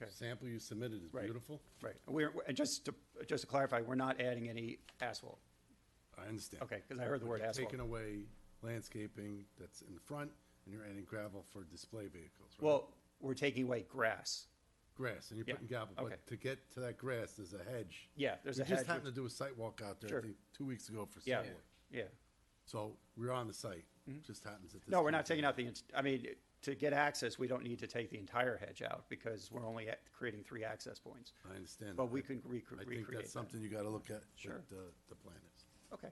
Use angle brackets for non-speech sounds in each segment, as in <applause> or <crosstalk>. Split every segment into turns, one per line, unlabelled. Okay.
Sample you submitted is
Right.
beautiful.
Right, we're, and just to, just to clarify, we're not adding any asphalt.
I understand.
Okay, 'cause I heard the
But
word
you're
asphalt.
Taking away landscaping that's in front and you're adding gravel for display vehicles, right?
Well, we're taking away grass.
Grass, and you're
yeah,
putting gravel,
okay.
but to get to that grass, there's a hedge.
Yeah, there's a
We
hedge
just happened to
with-
do a site walk out there,
Sure.
I think, two weeks ago for
Yeah,
sidewalk.
yeah.
So we're on the site, just happens at this.
No, we're not
point in
taking out the, ins- I mean, to get access, we don't need to take the entire hedge out because we're only at- creating three access points.
time. I understand.
But
that.
we
I-
can recre-
I think
recreate
that's
that.
something you gotta look at
Sure.
with the, the planners.
Okay,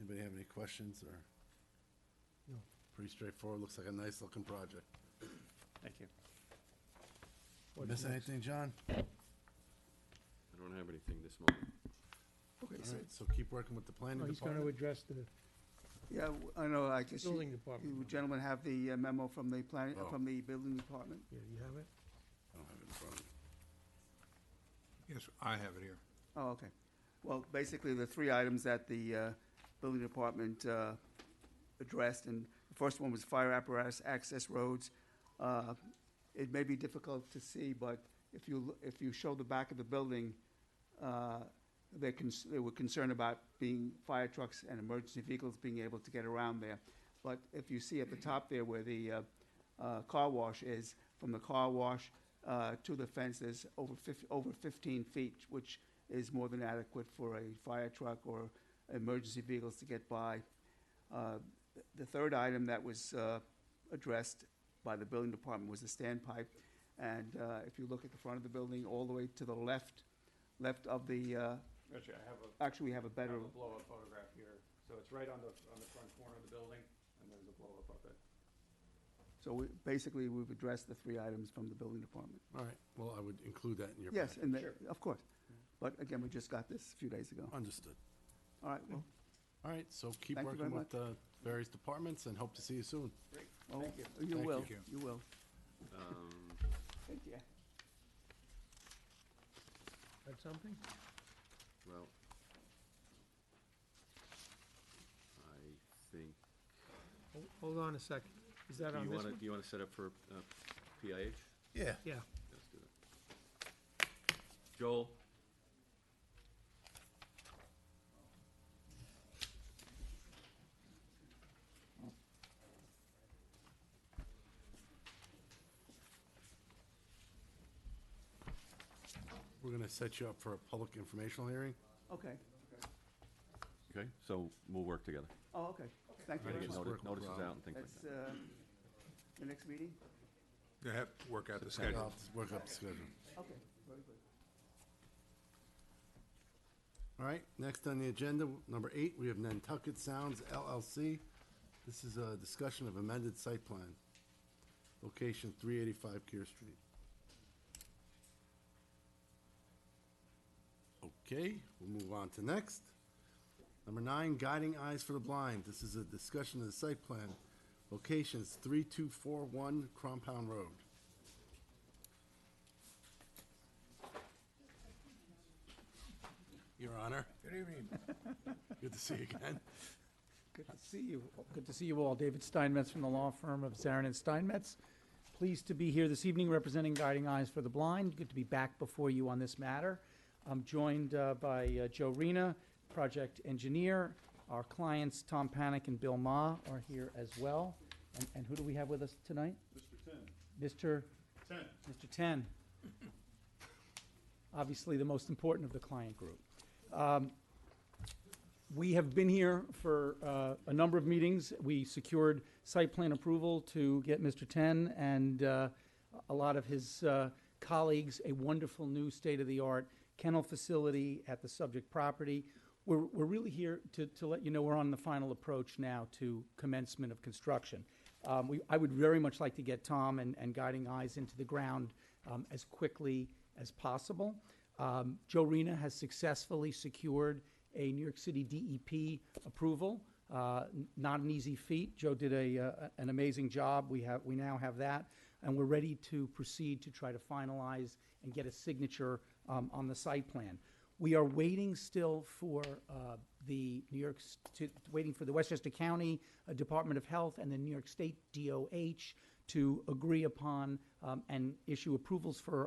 Anybody have any questions or? Pretty straightforward, looks like a nice looking project.
thank you.
Miss anything, John?
I don't have anything this moment.
Okay,
All
so,
right, so keep working with the planning
Oh, He's gonna
department.
address the,
yeah, w- I know, Oh, I guess
Building
you
department.
you gentlemen have the uh, memo from the plan, uh,
Oh.
from the building department.
yeah, you have it?
I don't have it in front of me.
Yes, I have it here.
Oh, okay. Well, basically, the three items that the uh, building department uh, addressed, and the first one was fire apparatus access roads. Uh, It may be difficult to see, but if you, l- if you show the back of the building, uh, they're, cons- they were concerned about being fire trucks and emergency vehicles being able to get around there. But if you see at the top there where the uh, uh, car wash is, from the car wash uh, to the fence, there's over fif- over 15 feet, which is more than adequate for a fire truck or emergency vehicles to get by. Uh, th- The third item that was uh, addressed by the building department was the standpipe. And uh, if you look at the front of the building, all the way to the left, left of the, uh,
Actually, I have a,
actually, we have a better,
blow-up photograph here. So it's right on the, on the front corner of the building and there's a blow-up of it.
so we- basically, we've addressed the three items from the building department.
All right, well, I would include that in your.
Yes,
packet.
and, the- of course. But again, we just got this a few days ago.
Understood.
All right, well,
All right, so keep
Thank you
working
very
with the various departments and hope to see you soon.
oh, you
Thank
will,
you.
you will.
Um,
Thank you.
Had something?
well, I think,
Hol- Hold on a second. Is that
do
on
you
this
want to,
one?
do you want to set up for uh, PIH?
Yeah.
Yeah,
Let's do that. Joel?
We're gonna set you up for a public informational hearing.
Okay.
Okay, so we'll work together.
Oh, okay. Thank you
Try to
very
get
Just
much.
noti-
work with
notices
Rob.
out and things like
That's,
that.
uh, the next meeting?
You have to work out the
I'll
schedule.
just Work up the schedule.
Okay, very good.
All right, next on the agenda, number eight, we have Nantucket Sounds LLC. This is a discussion of amended site plan. Location three eighty-five Kear Street. Okay, we'll move on to next. Number nine, Guiding Eyes for the Blind. This is a discussion of the site plan. Locations three two four one Crompound Road. Your Honor,
Good evening.
<laughs> good to see you again.
Good to see you. Good to see you all. David Steinmetz from the law firm of Zarin and Steinmetz. Pleased to be here this evening representing Guiding Eyes for the Blind. Good to be back before you on this matter. I'm joined uh, by uh, Joe Rena, project engineer. Our clients, Tom Panic and Bill Ma, are here as well. And- And who do we have with us tonight? Mr. Ten. Mr. Ten. Obviously, the most important of the client group. Um, We have been here for uh, a number of meetings. We secured site plan approval to get Mr. Ten and uh, a lot of his uh, colleagues a wonderful new state-of-the-art kennel facility at the subject property. We're we're really here to to let you know we're on the final approach now to commencement of construction. Um, we, I would very much like to get Tom and, and Guiding Eyes into the ground um, as quickly as possible. Um, Joe Rena has successfully secured a New York City DEP approval. Uh, n- not an easy feat. Joe did a, uh, an amazing job. We have we now have that, and we're ready to proceed to try to finalize and get a signature um, on the site plan. We are waiting still for uh, the New York, S- to- waiting for the Westchester County uh, Department of Health and the New York State DOH to agree upon um, and issue approvals for